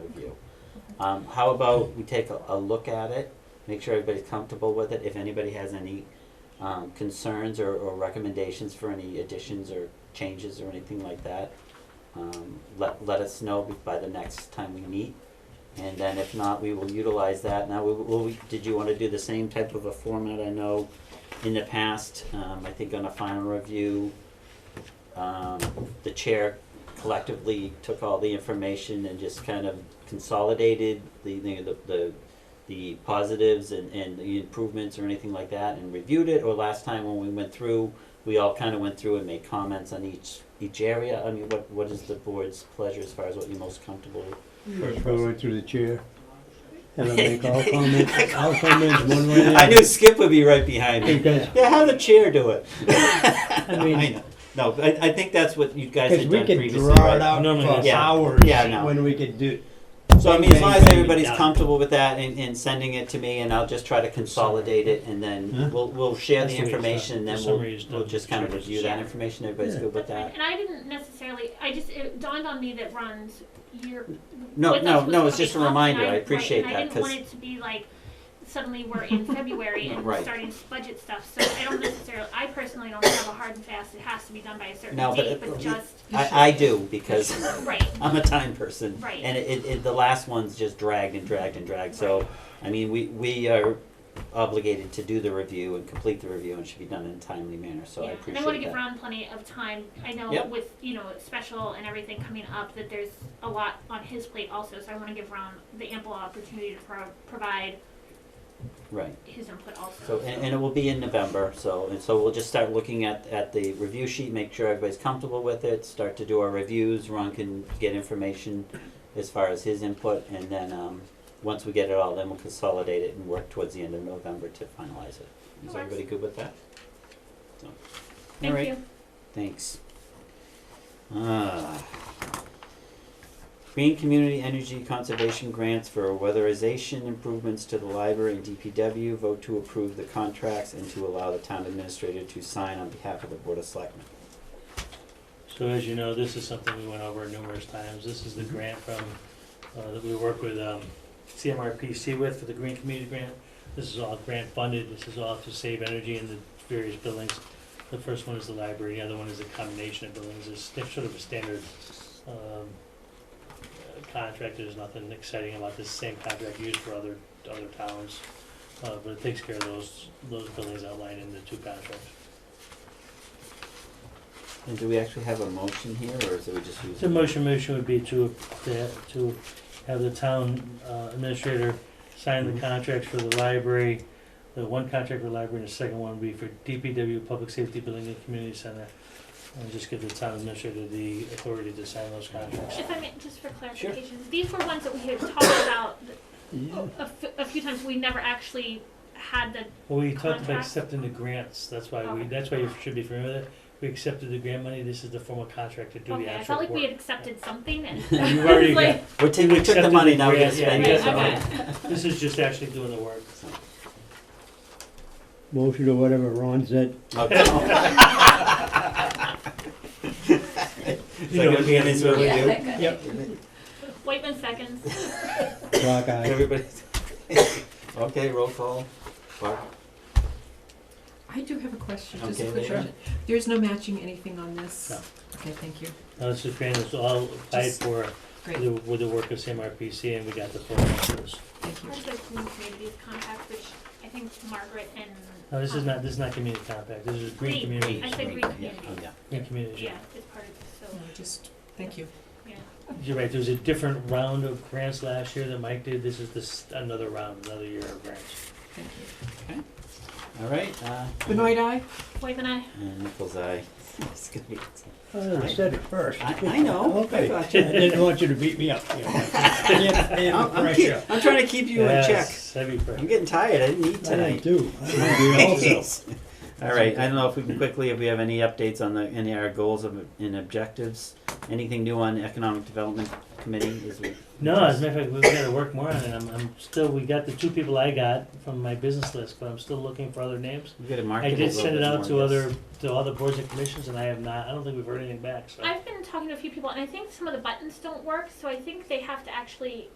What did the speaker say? Um, how about we take a, a look at it, make sure everybody's comfortable with it, if anybody has any, um, concerns or, or recommendations for any additions or changes or anything like that, um, let, let us know be- by the next time we meet. And then if not, we will utilize that. Now, will, will we, did you wanna do the same type of a format? I know in the past, um, I think on a final review, um, the chair collectively took all the information and just kind of consolidated the, the, the- the, the positives and, and the improvements or anything like that and reviewed it, or last time when we went through, we all kind of went through and made comments on each, each area? I mean, what, what is the board's pleasure as far as what you're most comfortable with? First, go right through the chair. And I make all comments, all comments one way. or the I other. knew Skip would be right behind me. Because, Yeah, how the chair do it? I mean, know. No, but I, I think that's what you guys because had we done could previously, draw it right? out No, no, no. for Yeah. hours Yeah, no. when we could do. So I mean, as bang, long as bang, everybody's done. comfortable with that and, and sending it to me, and I'll just try to consolidate it, and Huh? then we'll, we'll share the That's the way it's information, done. and then The we'll, summary is we'll done. just kind of Summary is review that done. information, everybody's Yeah. good with That's fine. that? And I didn't necessarily, I just, it dawned on me that runs year. No, with no, us was no, it's just a coming up, reminder. and I right, appreciate and that, I didn't 'cause- want it to be like, suddenly we're in February and we're Right. starting budget stuff, so I don't necessarily, I personally don't have a hard and fast, it has to be done by a certain No, but date, it- but just, I, I do, because right, I'm a time person. Right. And it, it, it, the last one's just dragged and dragged and dragged, so, I mean, we, we are obligated to do the review and complete the review, and it should be done in a timely manner, so I yeah. And appreciate I that. wanna give Ron plenty of time, I know Yep. with, you know, special and everything coming up, that there's a lot on his plate also, so I wanna give Ron the ample opportunity to pro- provide Right. his input So, also. and, and it will be in November, so, and so we'll just start looking at, at the review sheet, make sure everybody's comfortable with it, start to do our reviews, Ron can get information as far as his input, and then, um, once we get it all, then we'll consolidate it and work towards the end of November to finalize it. Is That works. everybody good with that? So, Thank alright, you. Thanks. Ah. Green Community Energy Conservation Grants for weatherization improvements to the library and DPW. Vote to approve the contracts and to allow the town administrator to sign on behalf of the Board of Selectmen. So as you know, this is something we went over numerous times. This is the grant from, uh, that we work with, um, CMRPC with for the Green Community Grant. This is all grant funded. This is all to save energy in the various buildings. The first one is the library, the other one is a combination of buildings. It's sta- sort of a standard, um, uh, contract. There's nothing exciting about this same contract used for other, other towns. Uh, but it takes care of those, those buildings outlined in the two contracts. And do we actually have a motion here, or is it we just use? The motion, motion would be to, to- to have the town uh, administrator sign the contracts for the library. The one contract for the library and the second one would be for DPW, Public Safety Building and Community Center. And just give the town administrator the authority to sign those contracts. If I may, just for clarification, these were ones that we had talked about Yeah. a f- a few times, we never actually had the, Well, we talked about Contract. accepting the grants, that's why we, Okay. that's why you should be familiar with it. We accepted the grant money, this is the formal contract to do the okay, I actual felt like we had work. accepted something and. You've already Like- got- We're taking, we took the accepted money, the now we're gonna grant, yeah, spend you it. got the money. This is just actually doing the work. Motion or whatever Ron said. Okay. It's You know like what me and you his do. review. Whiteman seconds, Clock eye. Everybody. Okay, roll call. Barb? I do have a question, just Okay, a quick Leah. question. There's no matching anything on this? No. Okay, thank you. Now, this is grant, it's all applied Just- for. Great, the- with the work of CMRPC and we got the full numbers. thank you. There's the Green Communities Compact, which I think Margaret and. No, this is um, not, this is not community compact, this is green Green. community, I said green Yeah, community. oh, yeah. green community. Yeah, it's part of, this, No, so, Just, thank you. yeah. You're right, there was a different round of grants last year that Mike did, this is this, another round, another year of grants. Thank you. All right, uh, Benoit eye? Whiteman, I, and Nichols eye. It's gonna be- Oh, I said it first. I, I know. I Okay. I got you. didn't want you to beat me up. you know. Yeah, yeah, I'm, I'm, pressure. keep- I'm trying to keep you in check. Yes, heavy I'm pressure. getting tired. I didn't eat I tonight. do. I do also. Jeez. All right. I don't know if we can quickly, if we have any updates on the any of our goals of, and objectives. Anything new on economic development committee? Is we, No, as a matter of fact, we've gotta work more on it, I'm, I'm still, we got the two people I got from my business list, but I'm still looking for other names. we got to market. I a did little send it bit out more, to yes. other, to all the boards and commissions and I have not, I don't think we've heard anything back, so. I've been talking to a few people and I think some of the buttons don't work, so I think they have to actually